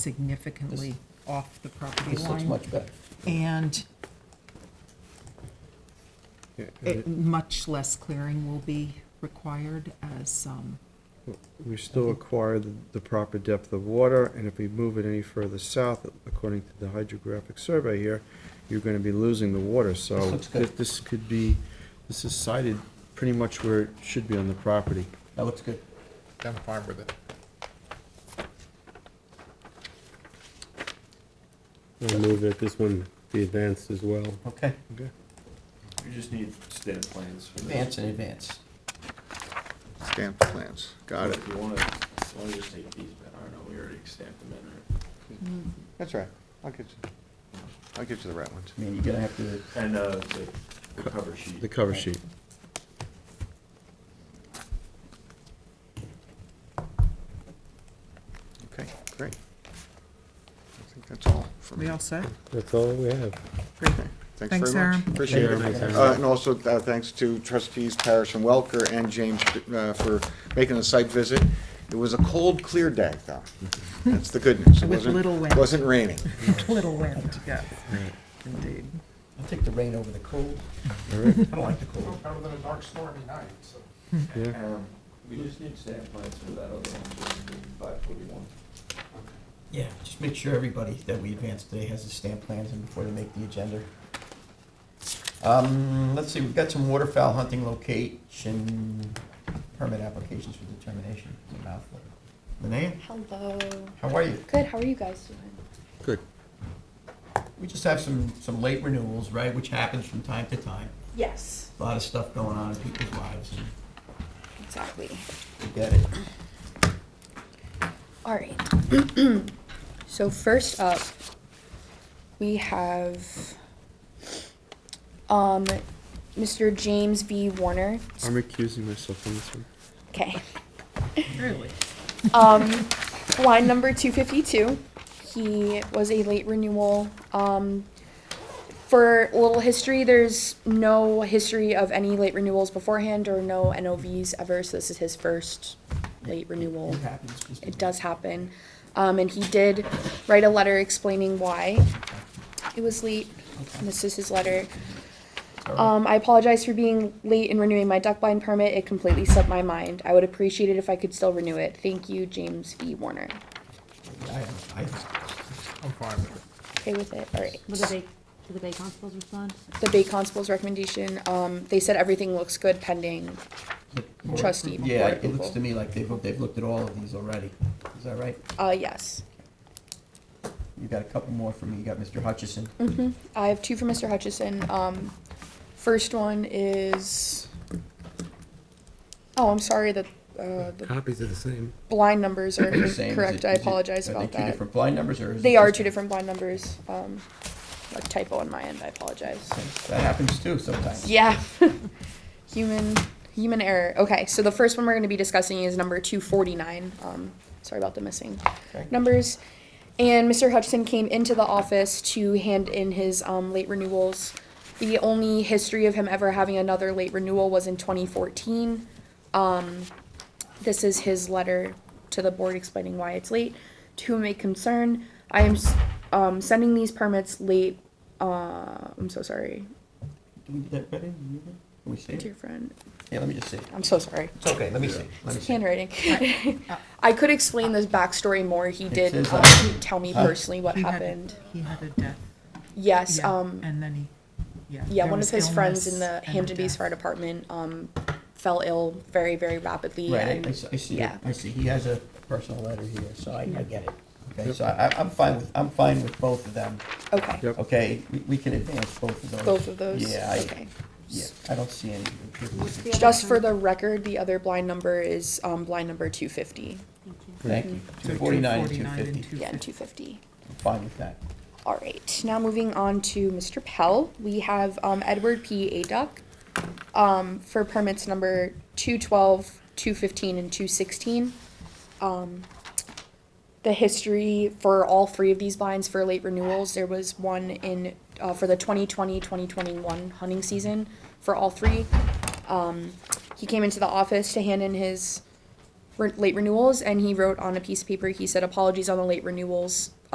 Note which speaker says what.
Speaker 1: significantly off the property
Speaker 2: This looks
Speaker 1: line.
Speaker 2: much better.
Speaker 1: And
Speaker 3: Yeah,
Speaker 4: Eh.
Speaker 1: it- much less clearing will be required as, um,
Speaker 3: We still acquire the the proper depth of water, and if we move it any further south, according to the hydrographic survey here, you're gonna be losing the water, so.
Speaker 2: This looks good.
Speaker 3: thi- This could be, this is sited pretty much where it should be on the property.
Speaker 2: That looks good.
Speaker 4: I'm fine with it.
Speaker 5: I move that this one be advanced as well.
Speaker 2: Okay.
Speaker 3: Okay.
Speaker 6: We just need stamp plans for this.
Speaker 2: Advance in advance.
Speaker 4: Stamped plans, got it.
Speaker 6: If you wanna, why don't you just take these, back? I don't know, we already stamped them in, right?
Speaker 4: That's right. I'll get you, I'll get you the right ones.
Speaker 2: I mean, you're gonna have to,
Speaker 6: And, uh, the, the cover sheet.
Speaker 3: The cover sheet.
Speaker 4: Okay, great. I think that's all for me.
Speaker 1: we all set?
Speaker 5: That's all we have.
Speaker 1: Great. Thanks,
Speaker 4: Thanks very much.
Speaker 1: Aaron.
Speaker 4: Appreciate it.
Speaker 5: Thanks, Aaron.
Speaker 4: Uh, And also, uh, thanks to trustees Parrish and Welker and James uh, for making the site visit. It was a cold, clear day, though. That's the good news. It
Speaker 1: With
Speaker 4: wasn't-
Speaker 1: little wind.
Speaker 4: Wasn't raining.
Speaker 1: Little wind, yes, indeed.
Speaker 2: I'll take the rain over the cold. I don't like the cold.
Speaker 3: Yeah.
Speaker 6: Um, we just need stamp plans for that other one, five forty-one.
Speaker 2: Yeah, just make sure everybody that we advance today has the stamp plans and before they make the agenda. Um, let's see, we've got some waterfowl hunting location permit applications for determination. It's a mouthful. Linnea,
Speaker 7: Hello.
Speaker 2: how are you?
Speaker 7: Good. How are you guys doing?
Speaker 3: Good.
Speaker 2: We just have some, some late renewals, right, which happens from time to time.
Speaker 7: Yes.
Speaker 2: A lot of stuff going on in people's lives.
Speaker 7: Exactly.
Speaker 2: We get it.
Speaker 7: All right. so first up, we have um, Mr. James V. Warner.
Speaker 3: I'm recusing myself on this one.
Speaker 7: Okay.
Speaker 1: Really?
Speaker 7: Um, line number 252. He was a late renewal. Um, for a little history, there's no history of any late renewals beforehand or no NOVs ever, so this is his first late renewal.
Speaker 2: It happens. just-
Speaker 7: it does happen. Um, and he did write a letter explaining why it was late. And this is his letter.
Speaker 2: It's all right.
Speaker 7: Um, I apologize for being late in renewing my duck blind permit. It completely slipped my mind. I would appreciate it if I could still renew it. Thank you, James V. Warner.
Speaker 2: I, I,
Speaker 7: Okay with it? All right.
Speaker 8: Will the Bay, do the Bay Constables respond?
Speaker 7: The Bay Constable's recommendation, um, they said everything looks good pending. Trustee
Speaker 2: Yeah, it looks
Speaker 7: board approval.
Speaker 2: to me like they've, looked- they've looked at all of these already. Is that right?
Speaker 7: Uh, yes.
Speaker 2: You got a couple more for me. You got Mr. Hutchison.
Speaker 7: Mm-hmm. I have two for Mr. Hutchison. Um, first one is, oh, I'm sorry that, uh, the
Speaker 5: Copies are the same.
Speaker 7: blind numbers are
Speaker 2: The same. Is
Speaker 7: incorrect.
Speaker 2: it-
Speaker 7: I
Speaker 2: is it-
Speaker 7: apologize
Speaker 2: are they
Speaker 7: about
Speaker 2: two
Speaker 7: that.
Speaker 2: different blind numbers or is it
Speaker 7: They are
Speaker 2: just-
Speaker 7: two different blind numbers. Um, a typo on my end. I apologize.
Speaker 2: That happens too sometimes.
Speaker 7: Yeah. human human error. Okay, so the first one we're going to be discussing is number 249. Um, sorry about the missing
Speaker 2: Okay.
Speaker 7: numbers. And Mr. Hutchinson came into the office to hand in his um, late renewals. The only history of him ever having another late renewal was in 2014. Um, this is his letter to the board explaining why it's late. To whom it may concern, I am s- um, sending these permits late. Uh, I'm so sorry.
Speaker 2: Do we get that ready? Can we see it?
Speaker 7: Dear friend,
Speaker 2: Yeah, let me just see. it.
Speaker 7: I'm so sorry.
Speaker 2: It's okay, let me see. Let me
Speaker 7: It's
Speaker 2: see.
Speaker 7: handwriting. I could explain this backstory more. He did
Speaker 2: says,
Speaker 7: um,
Speaker 2: uh,
Speaker 7: tell me
Speaker 2: huh?
Speaker 7: personally what
Speaker 1: He had-
Speaker 7: happened.
Speaker 1: He had a death.
Speaker 7: Yes.
Speaker 1: yeah,
Speaker 7: um,
Speaker 1: And then he, yeah.
Speaker 7: yeah,
Speaker 1: there
Speaker 7: one
Speaker 1: was
Speaker 7: of his friends
Speaker 1: illness
Speaker 7: in the
Speaker 1: and a
Speaker 7: Hampton Beach
Speaker 1: death.
Speaker 7: Fire Department um, fell ill very, very rapidly.
Speaker 2: Right,
Speaker 7: and
Speaker 2: I- I see- I see, it.
Speaker 7: yeah.
Speaker 2: I see. He has a personal letter here, so I, I get it. Okay, so I, I'm fine with, I'm fine with both of them.
Speaker 7: Okay.
Speaker 3: Yep.
Speaker 2: Okay, we, we can advance both of those.
Speaker 7: Both of those.
Speaker 2: Yeah, I,
Speaker 7: okay.
Speaker 2: yeah, I don't see any.
Speaker 8: the other
Speaker 7: Just
Speaker 8: one?
Speaker 7: for the record, the other blind number is um, blind number 250.
Speaker 8: Thank you.
Speaker 2: Thank you.
Speaker 1: So
Speaker 2: Two forty-nine and two
Speaker 1: 249 and
Speaker 2: fifty.
Speaker 7: Yeah, and
Speaker 1: 250.
Speaker 7: 250.
Speaker 2: I'm fine with that.
Speaker 7: All right, now moving on to Mr. Pell. We have um, Edward P. Aduck um, for permits number 212, 215, and 216. Um, the history for all three of these blinds for late renewals, there was one in uh, for the 2020 2021 hunting season for all three. Um, he came into the office to hand in his re- late renewals, and he wrote on a piece of paper, he said, apologies on the late renewals.